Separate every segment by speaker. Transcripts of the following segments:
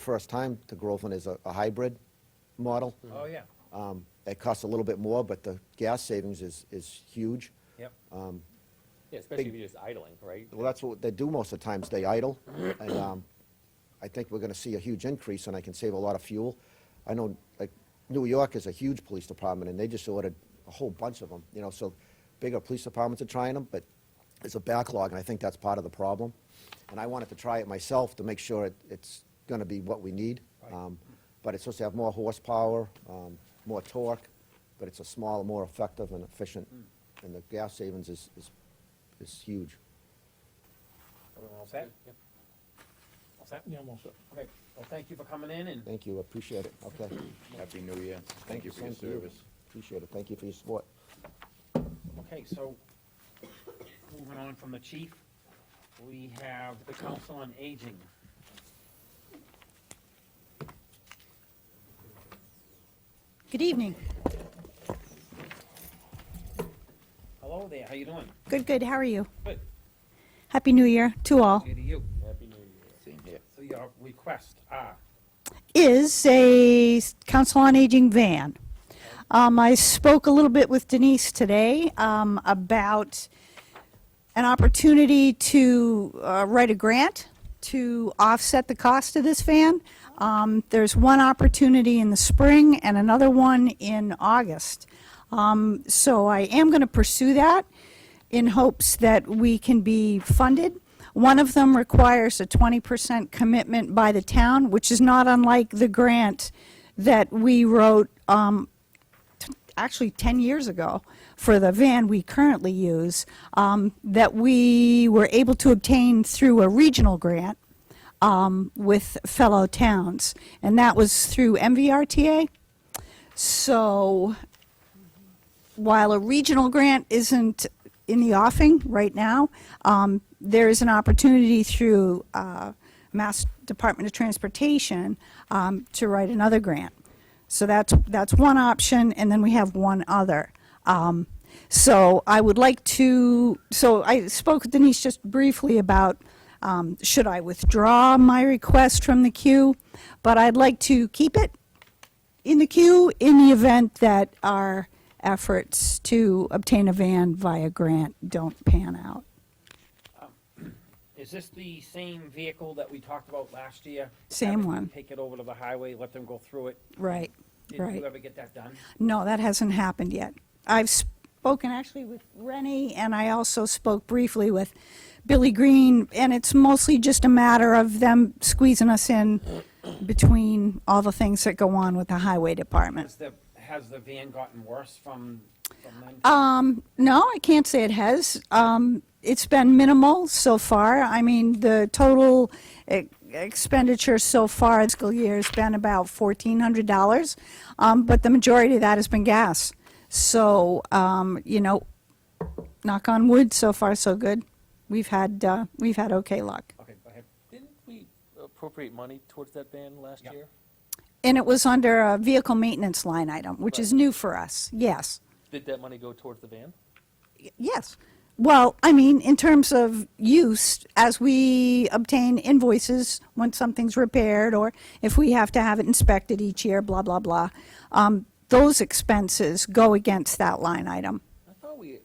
Speaker 1: first time to Groveland is a a hybrid model.
Speaker 2: Oh, yeah,
Speaker 1: Um, It costs a little bit more, but the gas savings is, is huge.
Speaker 2: yep.
Speaker 3: Yeah, especially
Speaker 1: Big-
Speaker 3: if you're just idling, right?
Speaker 1: Well, that's what they do most of the times, they idle. And um, I think we're going to see a huge increase, and I can save a lot of fuel. I know, like, New York is a huge police department, and they just ordered a whole bunch of them, you know, so bigger police departments are trying them, but it's a backlog, and I think that's part of the problem. And I wanted to try it myself to make sure it- it's going to be what we need.
Speaker 2: Right.
Speaker 1: Um, But it's supposed to have more horsepower, um, more torque, but it's a smaller, more effective and efficient, and the gas savings is, is, is huge.
Speaker 2: Everyone all set?
Speaker 3: Yep.
Speaker 2: All set?
Speaker 4: Yeah, I'm all set.
Speaker 2: Okay, well, thank you for coming in and
Speaker 1: Thank you, appreciate it, okay.
Speaker 5: Happy New Year. Thank you for your
Speaker 1: Same to you.
Speaker 5: service.
Speaker 1: Appreciate it, thank you for your support.
Speaker 2: Okay, so, moving on from the chief, we have the Council on Aging.
Speaker 6: Good evening.
Speaker 2: Hello there, how you doing?
Speaker 6: Good, good. How are you?
Speaker 2: Good.
Speaker 6: Happy New Year to all.
Speaker 2: Good to you.
Speaker 3: Happy New Year.
Speaker 5: Same here.
Speaker 2: So your request, ah,
Speaker 6: Is a s- Council on Aging van. Um, I spoke a little bit with Denise today, um, about an opportunity to, uh, write a grant to offset the cost of this van. Um, there's one opportunity in the spring and another one in August. Um, so I am gonna pursue that. in hopes that we can be funded. One of them requires a 20% commitment by the town, which is not unlike the grant that we wrote, um, t- actually 10 years ago, for the van we currently use, um, that we were able to obtain through a regional grant um, with fellow towns. And that was through MVRTA. So while a regional grant isn't in the offing right now, um, there is an opportunity through uh, Mass Department of Transportation um, to write another grant. So that's, that's one option, and then we have one other. Um, So I would like to, so I spoke with Denise just briefly about, um, should I withdraw my request from the queue? But I'd like to keep it in the queue in the event that our efforts to obtain a van via grant don't pan out.
Speaker 2: is this the same vehicle that we talked about last year?
Speaker 6: Same
Speaker 2: Having them
Speaker 6: one.
Speaker 2: Take it over to the highway, let them go through it.
Speaker 6: Right,
Speaker 2: Did
Speaker 6: right.
Speaker 2: you ever get that done?
Speaker 6: No, that hasn't happened yet. I've spoken actually with Rennie, and I also spoke briefly with Billy Green, and it's mostly just a matter of them squeezing us in between all the things that go on with the highway department.
Speaker 2: Has the, has the van gotten worse from, from then?
Speaker 6: Um, no, I can't say it has. Um, it's been minimal so far. I mean, the total e- expenditure so far this fiscal year has been about $1,400, um, but the majority of that has been gas. So, um, you know, knock on wood, so far so good. We've had, uh, we've had okay luck.
Speaker 2: Okay, go ahead.
Speaker 3: Didn't we appropriate money towards that van last
Speaker 2: Yeah.
Speaker 3: year?
Speaker 6: And it was under a vehicle maintenance line item, which is new for us, yes.
Speaker 3: Did that money go towards the van?
Speaker 6: Yes. Well, I mean, in terms of use, as we obtain invoices when something's repaired or if we have to have it inspected each year, blah, blah, blah, um, those expenses go against that line item.
Speaker 3: I thought we, was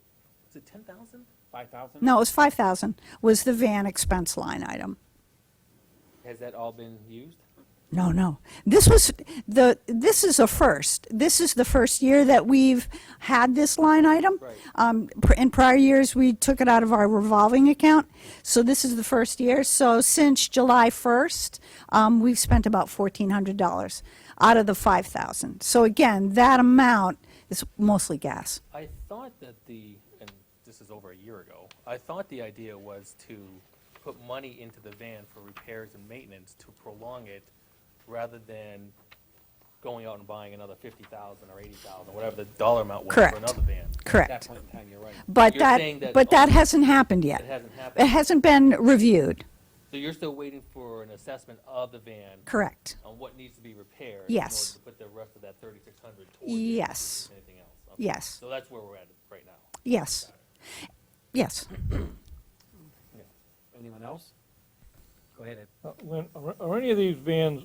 Speaker 3: it ten thousand?
Speaker 2: Five thousand?
Speaker 6: No, it was 5,000 was the van expense line item.
Speaker 3: Has that all been used?
Speaker 6: No, no. This was the, this is a first. This is the first year that we've had this line item.
Speaker 3: Right.
Speaker 6: Um, pr- in prior years, we took it out of our revolving account. So this is the first year. So since July 1st, um, we've spent about $1,400 out of the 5,000. So again, that amount is mostly gas.
Speaker 3: I thought that the, and this is over a year ago, I thought the idea was to put money into the van for repairs and maintenance to prolong it rather than going out and buying another fifty thousand or eighty thousand, whatever the dollar amount was
Speaker 6: Correct.
Speaker 3: for another van.
Speaker 2: At that
Speaker 6: Correct.
Speaker 2: point in time, you're right.
Speaker 6: But
Speaker 3: You're saying
Speaker 6: that,
Speaker 3: that
Speaker 6: but that
Speaker 3: only-
Speaker 6: hasn't happened yet.
Speaker 3: It hasn't happened.
Speaker 6: It hasn't been reviewed.
Speaker 3: So you're still waiting for an assessment of the van?
Speaker 6: Correct.
Speaker 3: On what needs to be repaired?
Speaker 6: Yes.
Speaker 3: In order to put the rest of that thirty-six hundred towards? it
Speaker 6: Yes.
Speaker 3: versus Anything else? Okay.
Speaker 6: Yes.
Speaker 3: So that's where we're at right now.
Speaker 6: Yes. Yes.
Speaker 2: Anyone else? Go ahead, Ed.
Speaker 4: Uh, Lynn, are are any of these vans